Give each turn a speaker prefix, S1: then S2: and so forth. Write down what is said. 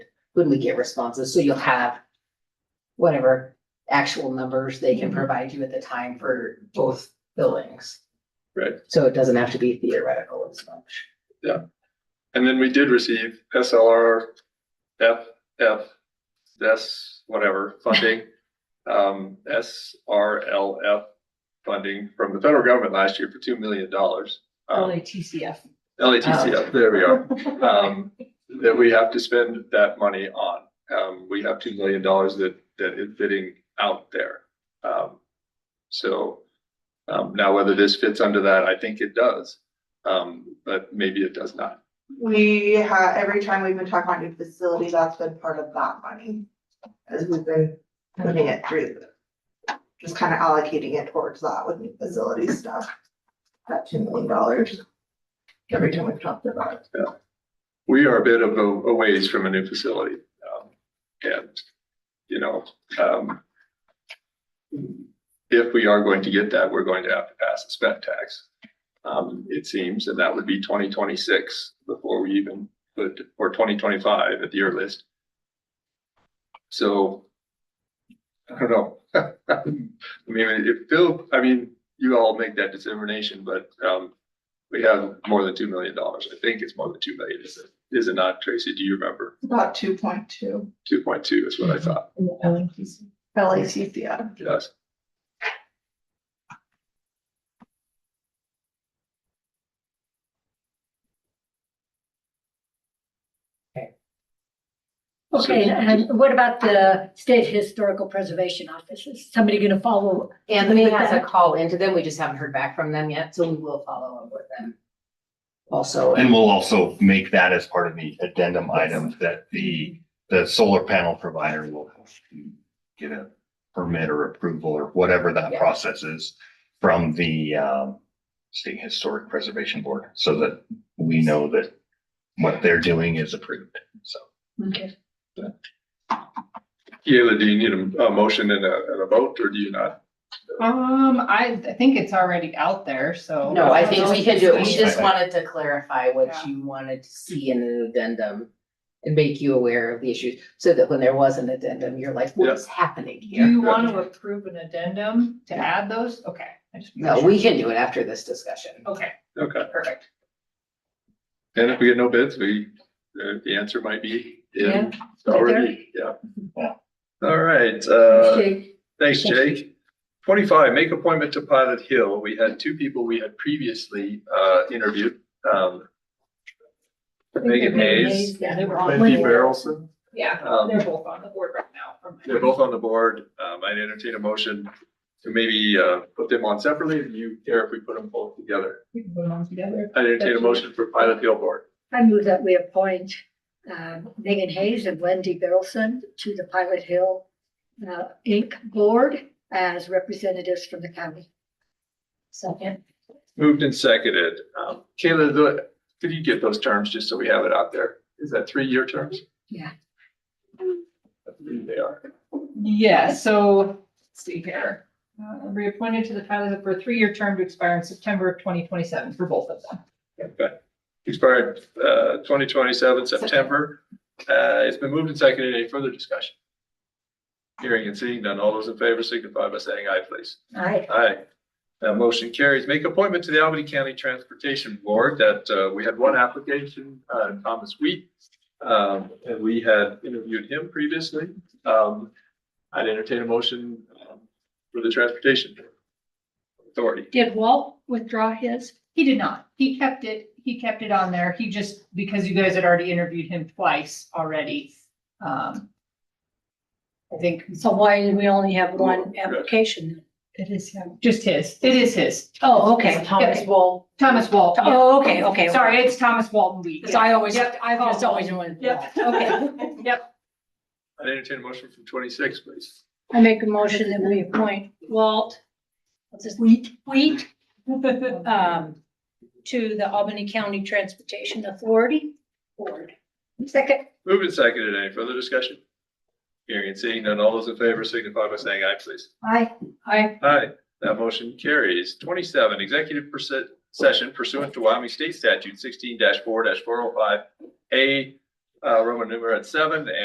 S1: when we get responses, so you'll have whatever actual numbers they
S2: Mm-hmm.
S1: can provide you at the time for both buildings.
S3: Right.
S1: So it doesn't have to be theoretical as much.
S3: And then we did receive SLR FF, S, whatever, funding, um, SRLF funding from the federal government last year for two million dollars. Um,
S4: LATCF.
S3: LATCF, there we are, um, that we have to spend that money on. Um, we have two million dollars that, that is bidding out there. Um, so, um, now whether this fits under that, I think it does. Um, but maybe it does not.
S5: We have, every time we've been talking about new facility, that's been part of that money. As we've been putting it through. Just kind of allocating it towards that with new facility stuff. That two million dollars. Every time we've talked about it.
S3: We are a bit of a, a ways from a new facility. um, And, you know, um, if we are going to get that, we're going to have to pass a spec tax. Um, it seems, and that would be twenty twenty-six before we even put, or twenty twenty-five at the year list. So I don't know. I mean, if Phil, I mean, you all make that determination, but, um, we have more than two million dollars. I think it's more than two million. Is it, is it not, Tracy? Do you remember?
S5: About two point two
S3: Two point two is what I thought.
S5: LACCF.
S3: Yes.
S4: Okay, and what about the state historical preservation office? Is somebody gonna follow?
S1: Anthony
S4: With
S1: has a
S4: that-
S1: call into them. We just haven't heard back from them yet, so we will follow up with them. Also,
S6: And we'll also make that as part of the addendum item that the, the solar panel provider will have to get a permit or approval or whatever that
S1: Yeah.
S6: process is from the, um, State Historic Preservation Board, so that we know that what they're doing is approved, so.
S4: Okay,
S3: Kayla, do you need a, a motion and a, and a vote or do you not?
S2: Um, I, I think it's already out there, so.
S1: no, I think we can do it. We just
S6: Yeah.
S1: wanted to clarify what
S2: Yeah.
S1: you wanted to see in an addendum and make you aware of the issues, so that when there was an addendum, you're like, what is happening
S2: Do
S1: here?
S2: you want to approve an addendum to add those? Okay. I just-
S1: No, we can do it after this discussion.
S2: Okay,
S3: Okay.
S2: perfect.
S3: And if we get no bids, we, uh, the answer might be in already. Yeah.
S6: Yeah.
S3: All right, uh,
S4: Okay.
S3: thanks,
S4: Thank
S3: Jake. Twenty-five, make appointment to Pilot Hill. We had two people we had previously, uh, interviewed. Um, Megan Hayes,
S4: Yeah, they were on.
S3: Wendy Barrelson.
S2: Yeah,
S3: Um,
S2: they're both on the board right now. from my-
S3: They're both on the board. Um, I'd entertain a motion to maybe, uh, put them on separately. Do you care if we put them both together?
S2: We can put them on together.
S3: I'd entertain a motion for Pilot Hill Board.
S4: I move that we appoint um, Megan Hayes and Wendy Berylson to the Pilot Hill uh, Inc. Board as representatives from the county. Second.
S3: Moved and seconded. Um, Kayla, the, could you get those terms just so we have it out there? Is that three-year terms?
S4: Yeah.
S3: I believe they are.
S2: Yeah, so, let's see here. Uh, reappointed to the Tyler for a three-year term to expire in September of twenty twenty-seven for both of them.
S3: Okay. Expired, uh, twenty twenty-seven, September. Uh, it's been moved and seconded. Any further discussion? Hearing and seeing none. All those in favor signify by saying aye, please.
S4: Aye.
S3: Aye. That motion carries. Make appointment to the Albany County Transportation Board that, uh, we had one application, uh, Thomas Wheat. Um, and we had interviewed him previously. Um, I'd entertain a motion um, for the transportation authority.
S4: Did Walt withdraw his?
S2: He did not. He kept it, he kept it on there. He just, because you guys had already interviewed him twice already. Um. I think
S4: So why do we only have
S3: one
S4: application? It is him.
S2: just his, it is his.
S4: Oh, okay.
S2: Thomas
S4: Wall.
S2: Thomas Walton.
S4: Oh, okay, okay.
S2: Sorry, it's Thomas Walton Week.
S4: So I always,
S2: Yep.
S4: I've just always known.
S2: Yep.
S4: Okay.
S2: Yep,
S3: I'd entertain a motion from twenty-six, please.
S4: I make a motion that we appoint Walt, what's his, Wheat, Wheat, um, to the Albany County Transportation Authority Board. Second.
S3: Moved and seconded. Any further discussion? Hearing and seeing none. All those in favor signify by saying aye, please.
S4: Aye. Aye.
S3: Aye. That motion carries. Twenty-seven, executive perse- session pursuant to Wyoming State Statute sixteen four four oh five A, uh, Roman numeral seven